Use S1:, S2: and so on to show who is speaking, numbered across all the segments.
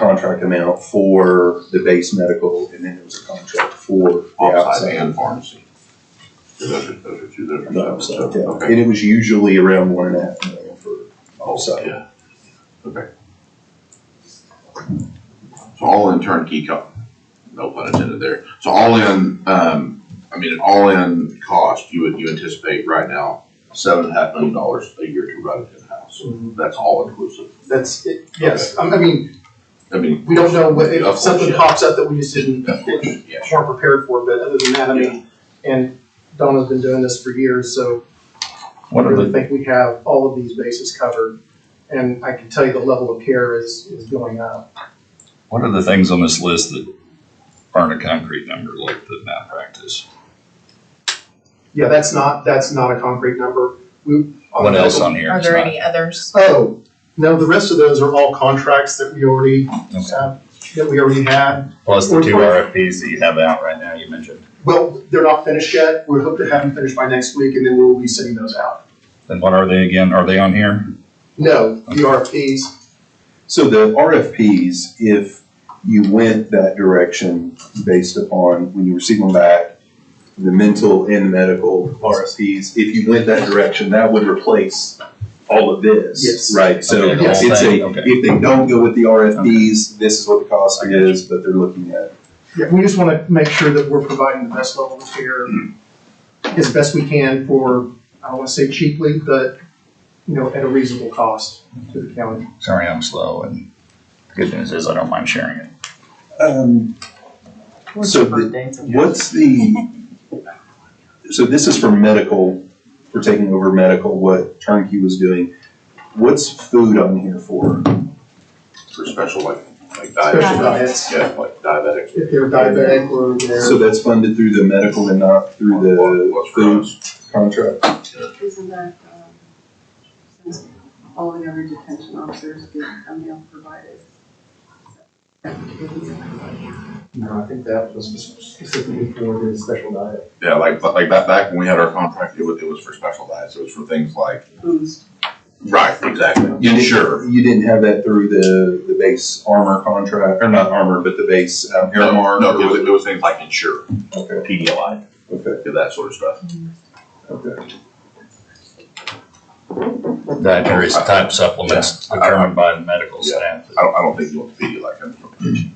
S1: contract amount for the base medical, and then there was a contract for the
S2: Outside
S1: outside.
S2: and pharmacy. Those are, those are two different.
S1: The outside, yeah.
S2: Okay.
S1: And it was usually around one and a half million for outside.
S2: Yeah. Okay. So all in turnkey co, no pun intended there. So all in, um, I mean, an all-in cost, you would, you anticipate right now, seven and a half million dollars a year to run it in-house.
S3: Mm-hmm.
S2: That's all inclusive.
S3: That's, it. yes, I I mean,
S2: I mean.
S3: we don't know what, if
S2: Of
S3: something
S2: course,
S3: pops up that we just didn't,
S2: yeah. Of course, yeah.
S3: weren't prepared for, but other than that, I mean, and Donna's been doing this for years, so I
S4: What are
S3: really
S4: the,
S3: think we have all of these bases covered. And I can tell you the level of care is, is going up.
S4: what are the things on this list that aren't a concrete number, like the malpractice?
S3: Yeah, that's not, that's not a concrete number. We.
S4: What else on here?
S5: Are
S4: is
S5: there
S4: not-
S5: any others?
S3: Oh, no, the rest of those are all contracts that we already,
S4: Okay.
S3: uh, that we already had.
S6: Plus the two
S3: Or-
S6: RFPs that you have out right now, you mentioned.
S3: Well, they're not finished yet. We hope to have them finished by next week, and then we'll be sending those out.
S4: Then what are they again? Are they on here?
S3: No, E the RFPs,
S1: So the RFPs, if you went that direction based upon when you receive them back, the mental and medical RFPs, if you went that direction, that would replace all of this.
S3: Yes.
S1: Right, so
S4: Okay, the whole
S1: it's
S4: thing,
S1: a,
S4: okay.
S1: if they don't go with the RFPs, this is what the cost is, but they're looking at
S3: yeah, we just want to make sure that we're providing the best level of care as best we can for, I don't want to say cheaply, but, you know, at a reasonable cost to the county.
S4: Sorry, I'm slow and the good news is I don't mind sharing it.
S1: Um, so the- what's the, so this is for medical, for taking over medical, what Turnkey was doing. What's food on here for?
S2: For special like, like
S3: Special
S2: diabetic,
S3: diets,
S2: yeah, like diabetic.
S3: if they're diabetic or they're.
S1: So that's funded through the medical and not through the
S2: What's for
S1: food
S2: us?
S1: contract?
S7: Isn't that, um, since all the other detention officers get a meal provided?
S3: No, I think that was specifically for the special diet.
S2: Yeah, like, like back, back when we had our contract, it was, it was for special diets. It was for things like,
S7: Boost.
S2: right, exactly. Insure.
S1: You didn't have that through the, the base armor contract, or not armor, but the base um,
S2: No,
S1: Airmark?
S2: No,
S1: or
S2: it was,
S1: what-
S2: it was things like insure,
S1: Okay,
S2: Pedialyte,
S1: okay,
S2: that sort of stuff.
S1: okay.
S4: Dietary type supplements determined by the medical staff.
S2: I don't, I don't think you want the Pedialyte kind of medication.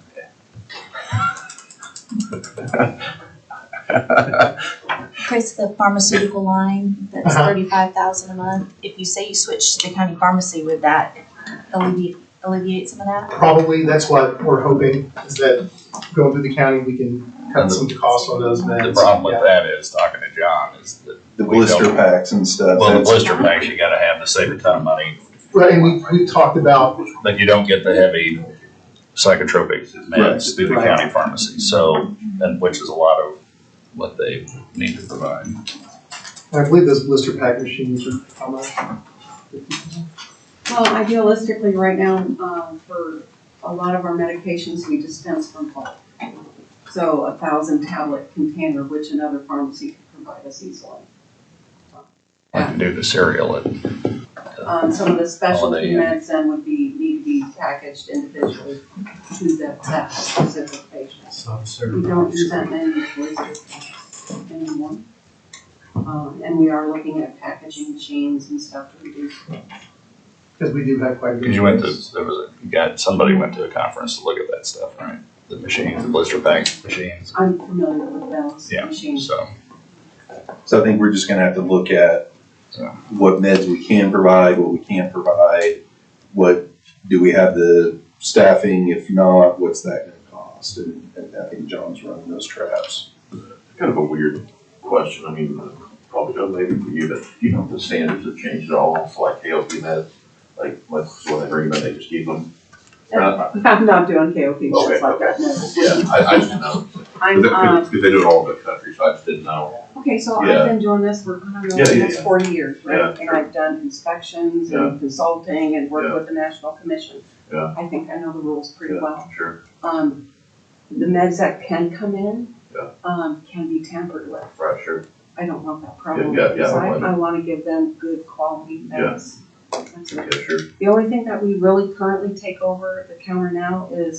S5: Okay, so the pharmaceutical line, that's
S3: Uh-huh.
S5: thirty-five thousand a month. If you say you switch to the county pharmacy, would that alleviate, alleviate some of that?
S3: Probably, that's what we're hoping, is that going through the county, we can cut some costs on those meds.
S4: The problem
S3: Yeah.
S4: with that is, talking to John, is that,
S1: The
S4: We don't-
S1: blister packs and stuff.
S4: well, the
S1: that's-
S4: blister packs, you gotta have to save a ton of money,
S3: Right, and we, we talked about,
S4: but you don't get the heavy psychotropic meds through the
S3: Right.
S4: county pharmacy, so, and which is a lot of what they need to provide.
S3: I believe those blister pack machines are, how much?
S7: Well, idealistically, right now, um, for a lot of our medications, we dispense from bulk. So a thousand tablet container, which another pharmacy could provide us easily.
S4: I can do the cereal at
S7: Um, some of the
S4: Holiday
S7: specialty
S4: Inn.
S7: meds then would be, need to be packaged individually to that, that specific patient. We don't use that many voices anymore. Um, and we are looking at packaging machines and stuff to reduce.
S3: Because we do have quite a bit.
S4: Because you went to, there was a, you got, somebody went to a conference to look at that stuff, right? The machines, the blister pack machines,
S7: I'm familiar with those
S4: Yeah.
S7: machines.
S4: so.
S1: So I think we're just gonna have to look at
S4: Yeah.
S1: what meds we can provide, what we can't provide, what, do we have the staffing? If not, what's that gonna cost? And, and I think John's running those traps.
S2: Kind of a weird question, I mean, probably not maybe for you, but you know, the standards have changed at all, so like KLP meds, like, what's, what they bring, but they just keep them. Uh,
S7: I'm not doing KOP
S2: Okay,
S7: shows like that, no.
S2: Yeah, I, I didn't know,
S7: I'm, um,
S2: because they do it all over the country, so I just didn't know.
S7: okay, so
S2: Yeah.
S7: I've been doing this for, I don't know,
S2: Yeah, yeah,
S7: almost
S2: yeah.
S7: forty years,
S2: Yeah,
S7: right? And
S2: sure.
S7: I've done inspections
S2: Yeah.
S7: and consulting and
S2: Yeah.
S7: worked with the National Commission.
S2: Yeah.
S7: I think I know the rules pretty
S2: Yeah.
S7: well.
S2: Sure,
S7: Um, the meds that can come in,
S2: Yeah.
S7: um, can be tampered with.
S2: right, sure,
S7: I don't want that problem.
S2: Yeah, yeah, yeah, I
S7: because I,
S2: wouldn't.
S7: I wanna give them good quality meds. That's it.
S2: Okay, sure.
S7: The only thing that we really currently take over the counter now is